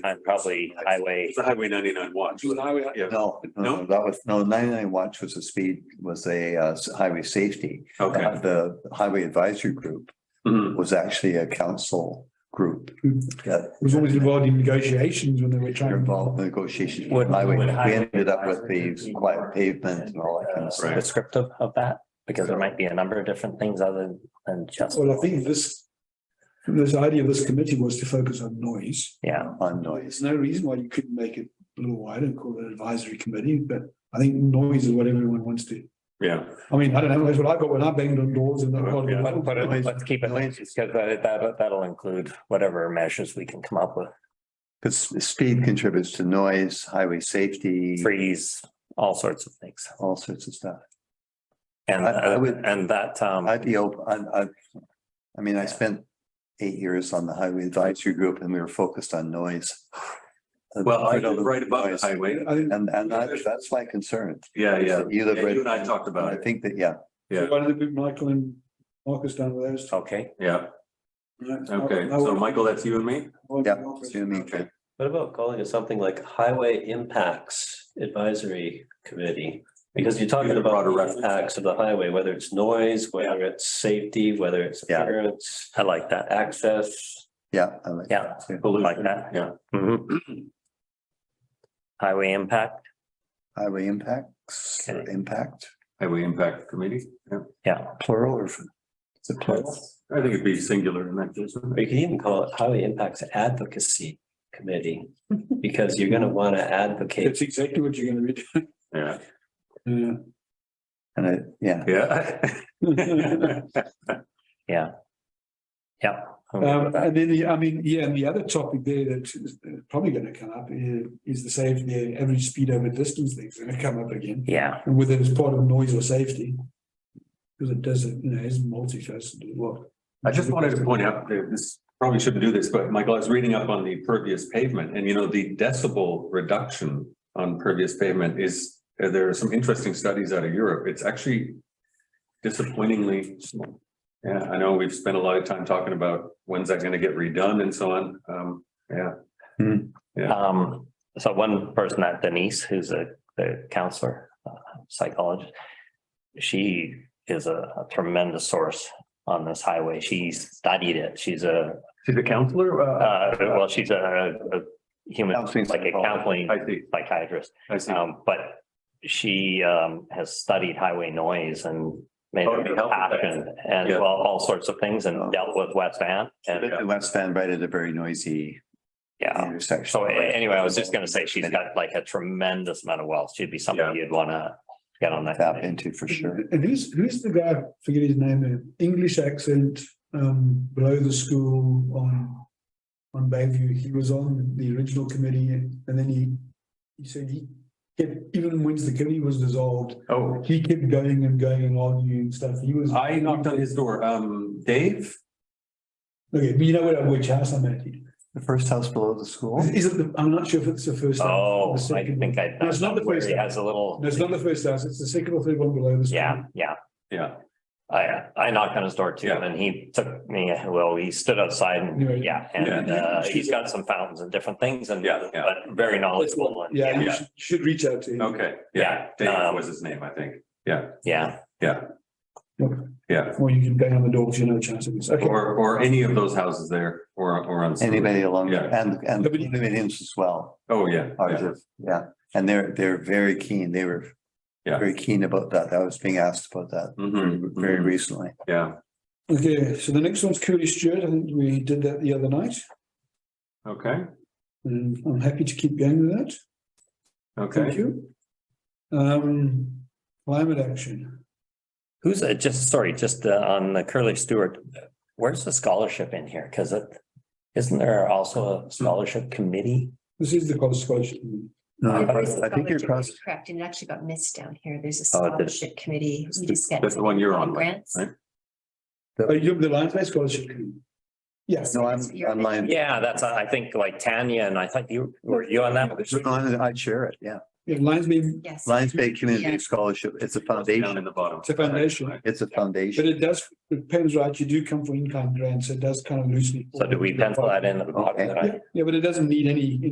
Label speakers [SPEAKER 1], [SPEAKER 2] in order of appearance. [SPEAKER 1] behind probably highway.
[SPEAKER 2] It's the highway ninety-nine watch.
[SPEAKER 3] It was highway,
[SPEAKER 2] Yeah,
[SPEAKER 4] No, no,
[SPEAKER 2] No?
[SPEAKER 4] no, that was, no, ninety-nine watch was a speed, was a uh, s- highway safety. Uh,
[SPEAKER 2] okay.
[SPEAKER 4] The highway advisory group
[SPEAKER 2] Mhm.
[SPEAKER 4] was actually a council group that
[SPEAKER 5] was always involved in negotiations when they were trying.
[SPEAKER 4] were
[SPEAKER 5] to
[SPEAKER 4] involved in negotitions. with
[SPEAKER 1] Would-
[SPEAKER 4] highway.
[SPEAKER 1] would
[SPEAKER 4] We
[SPEAKER 1] highway
[SPEAKER 4] ended up with the
[SPEAKER 1] advisory group
[SPEAKER 4] quiet
[SPEAKER 1] be-
[SPEAKER 4] pavement and all that kind
[SPEAKER 1] uh,
[SPEAKER 4] of stuff.
[SPEAKER 2] Right.
[SPEAKER 1] Descriptive of that, because there might be a number of different things other than just,
[SPEAKER 5] Well, I think this, this idea of this committee was to focus on noise.
[SPEAKER 1] yeah,
[SPEAKER 4] On noise.
[SPEAKER 5] There's no reason why you couldn't make it a little wider and call it an advisory committee, but I think noise is what everyone wants to.
[SPEAKER 2] Yeah,
[SPEAKER 5] I mean, I don't know, that's what I got when I banged on doors and.
[SPEAKER 2] Yeah.
[SPEAKER 1] but, but it- let's keep it, because that, that, that'll include whatever measures we can come up with,
[SPEAKER 4] Because speed contributes to noise, highway safety,
[SPEAKER 1] freeze, all sorts of things.
[SPEAKER 4] all sorts of stuff.
[SPEAKER 1] And,
[SPEAKER 4] I- I
[SPEAKER 1] uh,
[SPEAKER 4] would-
[SPEAKER 1] and that, um,
[SPEAKER 4] I'd be open, I, I, I mean, I spent eight years on the highway advisory group and we were focused on noise.
[SPEAKER 2] well, I
[SPEAKER 4] You know,
[SPEAKER 2] live right above the
[SPEAKER 4] noise.
[SPEAKER 2] highway.
[SPEAKER 5] I think
[SPEAKER 4] And, and that- that's my concern.
[SPEAKER 2] Yeah, yeah.
[SPEAKER 4] You live
[SPEAKER 2] Yeah,
[SPEAKER 4] right-
[SPEAKER 2] You and I talked about
[SPEAKER 4] I
[SPEAKER 2] it.
[SPEAKER 4] think that, yeah,
[SPEAKER 2] Yeah.
[SPEAKER 5] one of the big Michael and Marcus down with those.
[SPEAKER 1] okay,
[SPEAKER 2] Yeah,
[SPEAKER 5] Right.
[SPEAKER 2] okay.
[SPEAKER 5] I- I
[SPEAKER 2] So
[SPEAKER 5] would-
[SPEAKER 2] Michael, that's you and me?
[SPEAKER 5] I would-
[SPEAKER 4] yeah, you and me.
[SPEAKER 2] Okay.
[SPEAKER 6] What about calling it something like Highway Impacts Advisory Committee? Because you're talking
[SPEAKER 2] Use a
[SPEAKER 6] about
[SPEAKER 2] broader
[SPEAKER 6] the
[SPEAKER 2] reference.
[SPEAKER 6] impacts of the highway, whether it's noise, whether it's safety, whether it's
[SPEAKER 4] Yeah.
[SPEAKER 6] appearance,
[SPEAKER 1] I like that,
[SPEAKER 6] access.
[SPEAKER 4] yeah. I like
[SPEAKER 1] yeah.
[SPEAKER 4] that too.
[SPEAKER 1] Like that.
[SPEAKER 2] Yeah,
[SPEAKER 1] Mhm. Highway impact,
[SPEAKER 4] Highway impacts, or
[SPEAKER 1] Okay.
[SPEAKER 4] impact,
[SPEAKER 2] highway impact committee. Yeah,
[SPEAKER 1] yeah,
[SPEAKER 4] plural or is it plural?
[SPEAKER 2] I think it'd be singular in that case. wouldn't
[SPEAKER 6] Or
[SPEAKER 2] it?
[SPEAKER 6] you could even call it Highway Impacts Advocacy Committee, because you're gonna wanna advocate.
[SPEAKER 5] That's exactly what you're gonna read.
[SPEAKER 2] Yeah,
[SPEAKER 5] Yeah.
[SPEAKER 4] And I, yeah,
[SPEAKER 2] yeah.
[SPEAKER 1] yeah. I'm good with
[SPEAKER 5] Um,
[SPEAKER 1] that.
[SPEAKER 5] and then the, I mean, yeah, and the other topic there that is uh, probably gonna come up is, is the safety, the average speed over distance thing's gonna come up again.
[SPEAKER 1] Yeah,
[SPEAKER 5] And whether it's part of noise or safety. Because it doesn't, you know, it's multifaceted, what?
[SPEAKER 2] I just wanted to point out, that this, probably shouldn't do this, but Michael, I was reading up on the pervious pavement and you know, the decibel reduction on pervious pavement is, uh, there are some interesting studies out of Europe. It's actually disappointingly small. Yeah, I know we've spent a lot of time talking about when's that gonna get redone and so on. Um, yeah,
[SPEAKER 1] um, so one person at Denise, who's a, the counselor, uh, psychologist. She is a tremendous source on this highway. She studied it. She's a,
[SPEAKER 2] she's a counselor? Uh,
[SPEAKER 1] uh, well, she's a, a human,
[SPEAKER 4] Counseling
[SPEAKER 1] like a
[SPEAKER 4] psychologist.
[SPEAKER 1] counseling
[SPEAKER 2] I see,
[SPEAKER 1] psychiatrist.
[SPEAKER 2] I see.
[SPEAKER 1] Um, but she, um, has studied highway noise and made
[SPEAKER 2] Oh,
[SPEAKER 1] it
[SPEAKER 2] yeah.
[SPEAKER 1] a passion and
[SPEAKER 2] Yeah.
[SPEAKER 1] well, all sorts of things
[SPEAKER 4] Oh.
[SPEAKER 1] and dealt with West Van. And,
[SPEAKER 4] The West Van right at a very noisy
[SPEAKER 1] yeah,
[SPEAKER 4] intersection.
[SPEAKER 1] so a- anyway, I was just gonna say she's got like a tremendous amount of wealth. She'd be
[SPEAKER 2] Yeah.
[SPEAKER 1] somebody you'd wanna get on that.
[SPEAKER 4] Tap
[SPEAKER 1] committee.
[SPEAKER 4] into for sure.
[SPEAKER 5] And who's, who's the guy, forget his name, an English accent, um, below the school on. On Bayview, he was on the original committee and then he, he said he, kept- even once the committee was dissolved.
[SPEAKER 2] Oh,
[SPEAKER 5] He kept going and going and arguing and stuff, he was.
[SPEAKER 2] I knocked on his door. Um, Dave?
[SPEAKER 5] Okay, but you know what, which house I'm at,
[SPEAKER 4] The first house below the school?
[SPEAKER 5] is it, the- I'm not sure if it's the first. house or
[SPEAKER 1] Oh,
[SPEAKER 5] the
[SPEAKER 1] I
[SPEAKER 5] second one.
[SPEAKER 1] think I.
[SPEAKER 5] No, it's not the
[SPEAKER 1] where
[SPEAKER 5] first
[SPEAKER 1] He
[SPEAKER 5] one.
[SPEAKER 1] has a little.
[SPEAKER 5] No, It's not the first house, it's the second or third one below this.
[SPEAKER 1] Yeah, yeah.
[SPEAKER 2] Yeah,
[SPEAKER 1] I, I knocked on his door too
[SPEAKER 2] Yeah.
[SPEAKER 1] and he took me, well, he stood outside
[SPEAKER 5] Yeah.
[SPEAKER 1] and, yeah, and,
[SPEAKER 5] Yeah.
[SPEAKER 1] uh, he's got some fountains and different things and,
[SPEAKER 2] Yeah, yeah.
[SPEAKER 1] but very knowledgeable. and-
[SPEAKER 5] Yeah, you
[SPEAKER 2] Yeah.
[SPEAKER 5] should, should reach out to him.
[SPEAKER 2] okay, yeah,
[SPEAKER 1] Yeah,
[SPEAKER 2] Dave
[SPEAKER 1] um,
[SPEAKER 2] was his name, I think.
[SPEAKER 1] Yeah,
[SPEAKER 2] Yeah,
[SPEAKER 5] Or you can bang on the door if you know a chance of this, okay.
[SPEAKER 2] or, or any of those houses there or, or on.
[SPEAKER 4] Anybody along,
[SPEAKER 2] Yeah.
[SPEAKER 4] and, and the
[SPEAKER 5] Nobody-
[SPEAKER 4] condominiums as well.
[SPEAKER 2] Oh, yeah.
[SPEAKER 4] are
[SPEAKER 2] yeah.
[SPEAKER 4] just- yeah, and they're, they're very keen, they were.
[SPEAKER 2] Yeah.
[SPEAKER 4] Very keen about that, I was being asked about that very-
[SPEAKER 2] Mhm,
[SPEAKER 4] very
[SPEAKER 2] mhm,
[SPEAKER 4] recently.
[SPEAKER 2] Yeah,
[SPEAKER 5] Okay, so the next one's Curly Stewart, I think we did that the other night,
[SPEAKER 2] okay,
[SPEAKER 5] and I'm happy to keep going with that, thank
[SPEAKER 2] okay.
[SPEAKER 5] you. Um, climate action,
[SPEAKER 1] who's, uh, just, sorry, just uh, on the Curly Stewart, where's the scholarship in here? Cause it, isn't there also a scholarship committee?
[SPEAKER 5] this is the college scholarship.
[SPEAKER 4] No,
[SPEAKER 1] Yeah,
[SPEAKER 4] Uh, I
[SPEAKER 1] but
[SPEAKER 4] I think you're cross,
[SPEAKER 7] Correct, and it actually got missed down here. There's a
[SPEAKER 1] Oh, it did.
[SPEAKER 7] scholarship committee. We just get
[SPEAKER 2] That's the one you're on,
[SPEAKER 7] Grants.
[SPEAKER 2] right?
[SPEAKER 5] Oh, you have the Lions Bay Scholarship Committee? Yes,
[SPEAKER 4] no, I'm,
[SPEAKER 7] You're-
[SPEAKER 4] I'm lying.
[SPEAKER 1] Yeah, that's, I think like Tanya and I thought you, were you on that?
[SPEAKER 4] I'd share it, yeah.
[SPEAKER 5] yeah, Lions Bay,
[SPEAKER 7] Yes.
[SPEAKER 4] Lions Bay Community
[SPEAKER 7] Yeah.
[SPEAKER 4] Scholarship, it's a
[SPEAKER 2] Down
[SPEAKER 4] foundation,
[SPEAKER 2] in the bottom.
[SPEAKER 5] It's a foundation.
[SPEAKER 4] it's a
[SPEAKER 5] but
[SPEAKER 4] foundation.
[SPEAKER 5] it does, it pens right, you do come for in-kind grants, it does kind of loosely.
[SPEAKER 1] So do we pencil that in? at the bottom
[SPEAKER 4] Okay.
[SPEAKER 1] that I-
[SPEAKER 5] Yeah, yeah, but it doesn't need any